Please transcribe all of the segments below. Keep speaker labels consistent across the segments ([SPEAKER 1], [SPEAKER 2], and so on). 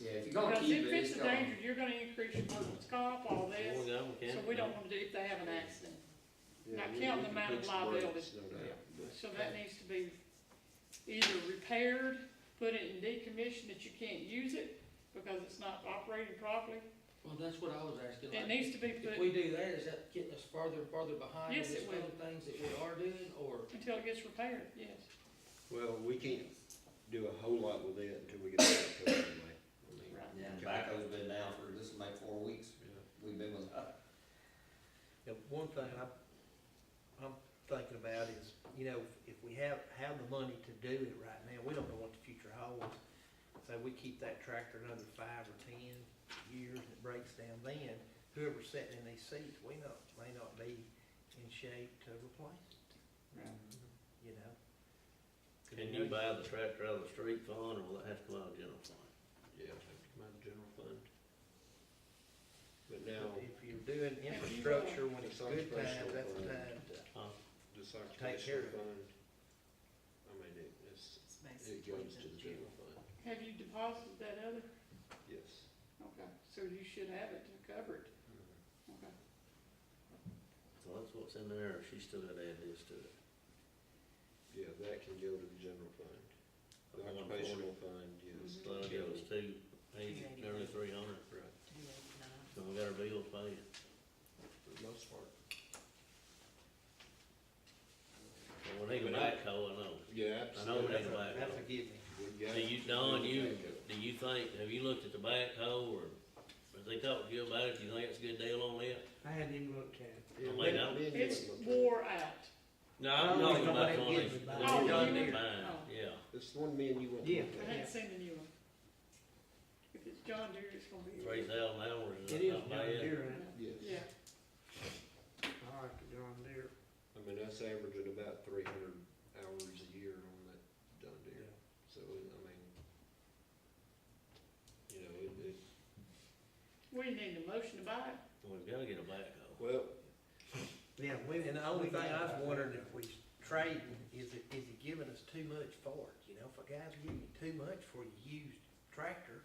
[SPEAKER 1] Yeah, if you're gonna
[SPEAKER 2] Because
[SPEAKER 1] keep
[SPEAKER 2] if
[SPEAKER 1] it,
[SPEAKER 2] it's
[SPEAKER 1] it's
[SPEAKER 2] a
[SPEAKER 1] gonna,
[SPEAKER 2] danger, you're gonna increase your workers' comp, all this,
[SPEAKER 3] Well, no,
[SPEAKER 2] so
[SPEAKER 3] can't.
[SPEAKER 2] we don't wanna do, if they have an accident.
[SPEAKER 3] Yeah,
[SPEAKER 2] not
[SPEAKER 3] we-
[SPEAKER 2] count
[SPEAKER 3] we
[SPEAKER 2] the
[SPEAKER 3] can
[SPEAKER 2] amount of
[SPEAKER 3] fix the brakes,
[SPEAKER 2] liability.
[SPEAKER 3] no doubt.
[SPEAKER 2] So that needs to be either repaired, put it in decommission that you can't use it because it's not operating properly.
[SPEAKER 4] Well, that's what I was
[SPEAKER 2] It
[SPEAKER 4] asking, like,
[SPEAKER 2] needs to be
[SPEAKER 4] if
[SPEAKER 2] put
[SPEAKER 4] we do that, is that getting us farther and farther behind
[SPEAKER 2] Yes,
[SPEAKER 4] with
[SPEAKER 2] it
[SPEAKER 4] some
[SPEAKER 2] will.
[SPEAKER 4] of the things that we are doing, or?
[SPEAKER 2] until it gets repaired, yes.
[SPEAKER 3] Well, we can't do a whole lot with it until we get back to it anyway. I mean,
[SPEAKER 2] Right.
[SPEAKER 1] yeah, tobacco's been down for, this is like four weeks, we've been with, uh,
[SPEAKER 5] Yeah, one thing I, I'm thinking about is, you know, if we have, have the money to do it right now, we don't know what the future holds. So we keep that tractor another five or ten years, and it breaks down then, whoever's sitting in these seats, we not, may not be in shape to replace it.
[SPEAKER 2] Right.
[SPEAKER 5] You know?
[SPEAKER 3] Can you buy the tractor out of the street fund, or will it have to come out of general fund? Yeah, it'll have to come out of general fund. But now,
[SPEAKER 5] If you're doing infrastructure when it's good time, that's the time to.
[SPEAKER 6] Uh,
[SPEAKER 3] this
[SPEAKER 5] Take care
[SPEAKER 3] occupational
[SPEAKER 5] of
[SPEAKER 3] fund,
[SPEAKER 5] it.
[SPEAKER 3] I mean, it, it's, it goes to the general fund,
[SPEAKER 2] Have you deposited that other?
[SPEAKER 3] yes.
[SPEAKER 2] Okay, so you should have it to cover it, okay.
[SPEAKER 6] Well, that's what's in there, if she's still gotta add this to it.
[SPEAKER 3] Yeah, that can go to the general fund. The
[SPEAKER 6] One forty.
[SPEAKER 3] occupational fund,
[SPEAKER 2] Mhm.
[SPEAKER 3] yes.
[SPEAKER 6] So that
[SPEAKER 3] can-
[SPEAKER 6] was two eighty, nearly three hundred,
[SPEAKER 3] Right,
[SPEAKER 6] so we got our bills paid.
[SPEAKER 3] for the most part.
[SPEAKER 6] But we need a
[SPEAKER 3] But I-
[SPEAKER 6] backhoe, oh, I know.
[SPEAKER 3] Yeah,
[SPEAKER 6] I know we need a
[SPEAKER 3] absolutely.
[SPEAKER 5] That's a
[SPEAKER 6] backhoe.
[SPEAKER 5] given.
[SPEAKER 3] We got-
[SPEAKER 6] Do you, Don,
[SPEAKER 3] we got
[SPEAKER 6] you,
[SPEAKER 3] it.
[SPEAKER 6] oh. do you think, have you looked at the backhoe, or, has they talked to you about it, do you think it's a good deal on it?
[SPEAKER 4] I hadn't even looked at it.
[SPEAKER 3] Yeah,
[SPEAKER 6] I mean,
[SPEAKER 3] we-
[SPEAKER 6] I-
[SPEAKER 3] we didn't
[SPEAKER 2] It's
[SPEAKER 3] look at it.
[SPEAKER 2] wore out.
[SPEAKER 6] No, I'm
[SPEAKER 5] No,
[SPEAKER 6] talking about
[SPEAKER 5] nobody
[SPEAKER 6] the one
[SPEAKER 5] gives
[SPEAKER 6] that's,
[SPEAKER 5] a
[SPEAKER 6] the
[SPEAKER 5] back-
[SPEAKER 6] one
[SPEAKER 2] Oh,
[SPEAKER 6] that's
[SPEAKER 2] you-
[SPEAKER 6] been buying,
[SPEAKER 2] oh.
[SPEAKER 6] yeah.
[SPEAKER 3] It's the one man you went.
[SPEAKER 5] Yeah.
[SPEAKER 2] I hadn't seen the new one. If it's John Deere, it's gonna be.
[SPEAKER 6] Three thousand hours,
[SPEAKER 4] It
[SPEAKER 6] is
[SPEAKER 4] is
[SPEAKER 6] not
[SPEAKER 4] John
[SPEAKER 6] bad.
[SPEAKER 4] Deere, ain't
[SPEAKER 3] Yes.
[SPEAKER 2] Yeah,
[SPEAKER 4] it? I like the John Deere.
[SPEAKER 3] I mean, that's averaging about three hundred hours a year on that John Deere, so, I mean, you know, it, it,
[SPEAKER 2] we need a motion to buy it.
[SPEAKER 6] We've gotta get a backhoe.
[SPEAKER 3] well,
[SPEAKER 5] Yeah, we, and the only thing I was wondering if we trade, is it, is he giving us too much for it? You know, if a guy's giving you too much for a used tractor,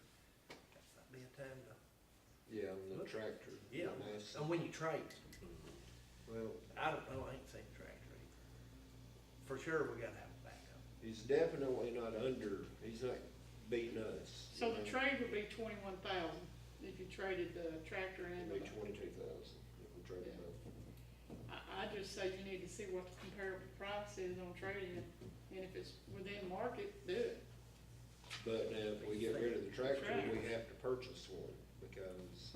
[SPEAKER 5] that might be a time to,
[SPEAKER 3] yeah, on the
[SPEAKER 5] Look.
[SPEAKER 3] tractor. the
[SPEAKER 5] Yeah. Um,
[SPEAKER 3] mass-
[SPEAKER 5] and when you trade,
[SPEAKER 3] Well,
[SPEAKER 5] I don't know, I ain't seen a tractor either. For sure, we gotta have a backup.
[SPEAKER 3] he's definitely not under, he's not beating us.
[SPEAKER 2] So the trade would be twenty-one thousand if you traded the tractor and the.
[SPEAKER 3] It'd be twenty-two thousand if we traded
[SPEAKER 2] Yeah.
[SPEAKER 3] both.
[SPEAKER 2] I, I just say you need to see what the comparable price is on trading, and if it's within market, do it.
[SPEAKER 3] But now, if we get rid of the tractor, we
[SPEAKER 2] Tractor.
[SPEAKER 3] have to purchase one, because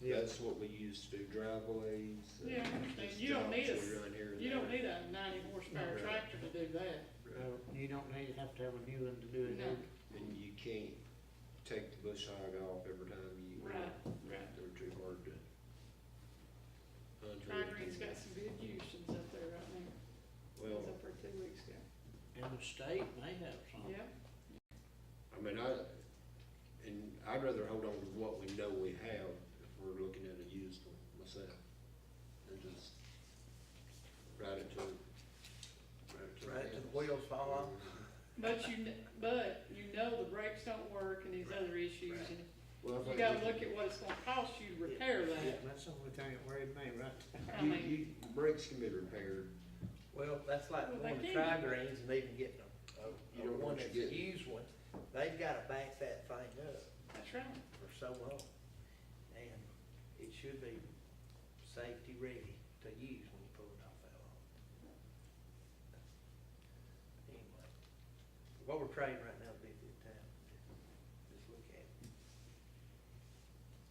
[SPEAKER 3] that's what we use to do driveways. and
[SPEAKER 2] Yeah, I understand.
[SPEAKER 3] just
[SPEAKER 2] You don't need
[SPEAKER 3] jobs
[SPEAKER 2] a-
[SPEAKER 3] we run here and
[SPEAKER 2] You don't
[SPEAKER 3] there.
[SPEAKER 2] need a ninety horsepower
[SPEAKER 3] Right.
[SPEAKER 2] tractor to do that,
[SPEAKER 3] Right.
[SPEAKER 4] You don't need, have to have a new one to do
[SPEAKER 2] no,
[SPEAKER 3] And you can't take the bush hog off every time you.
[SPEAKER 2] right, right.
[SPEAKER 3] They're too hard to. undo.
[SPEAKER 2] Tri-Green's got some good uses up there right now, it
[SPEAKER 3] Well,
[SPEAKER 2] was up there two weeks ago,
[SPEAKER 4] And the state may have
[SPEAKER 3] Oh.
[SPEAKER 4] some.
[SPEAKER 2] yeah,
[SPEAKER 3] I mean, I, and I'd rather hold on to what we know we have if we're looking at a used one myself. And just ride it to, ride it to. the
[SPEAKER 5] Right, till the
[SPEAKER 3] house.
[SPEAKER 5] wheels fall
[SPEAKER 3] Uh-huh.
[SPEAKER 5] off.
[SPEAKER 2] but you, kn- but you know the brakes don't work and these other issues,
[SPEAKER 5] Right.
[SPEAKER 2] and
[SPEAKER 3] Well, I
[SPEAKER 2] you
[SPEAKER 3] think
[SPEAKER 2] gotta
[SPEAKER 3] we-
[SPEAKER 2] look at what it's gonna cost you to repair that,
[SPEAKER 4] That's the only thing that worried me, right?
[SPEAKER 2] I
[SPEAKER 3] You,
[SPEAKER 2] mean,
[SPEAKER 3] you, brakes can be repaired,
[SPEAKER 5] Well, that's like
[SPEAKER 2] Well,
[SPEAKER 5] going
[SPEAKER 2] they
[SPEAKER 5] to
[SPEAKER 2] can.
[SPEAKER 5] tri-greens and even getting a,
[SPEAKER 3] Oh, You
[SPEAKER 5] a, a
[SPEAKER 3] don't know
[SPEAKER 5] one
[SPEAKER 3] what you're
[SPEAKER 5] that's a
[SPEAKER 3] getting.
[SPEAKER 5] used one, they've gotta back that thing up.
[SPEAKER 2] that's right,
[SPEAKER 5] for so long. And it should be safety ready to use when you pull it off that long. Anyway, what we're trading right now would be a good time to just look at. it.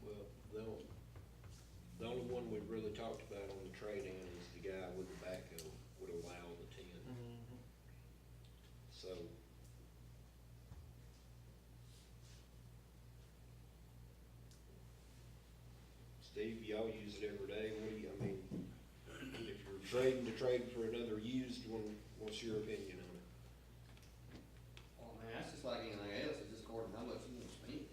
[SPEAKER 3] well, the only, the only one we really talked about on the trade-in is the guy with the backhoe would allow the ten. So. Steve, y'all use it every day, what do you, I mean, if you're trading to trade for another used one, what's your opinion on it?
[SPEAKER 1] well, man, that's just like anything else, it's just according to how much you can spend.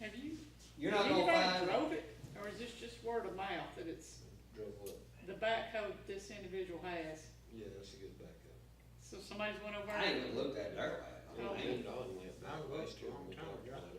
[SPEAKER 2] have you
[SPEAKER 1] You're not gonna
[SPEAKER 2] Anybody
[SPEAKER 1] find,
[SPEAKER 2] drove it, or is this just word of mouth that it's
[SPEAKER 3] Drove up,
[SPEAKER 2] the backhoe that this individual has?
[SPEAKER 3] yeah, that's a good backup.
[SPEAKER 2] So somebody's went over
[SPEAKER 1] I ain't even
[SPEAKER 2] and Oh,
[SPEAKER 1] looked at it, I, I mean,
[SPEAKER 3] And Don went back last year.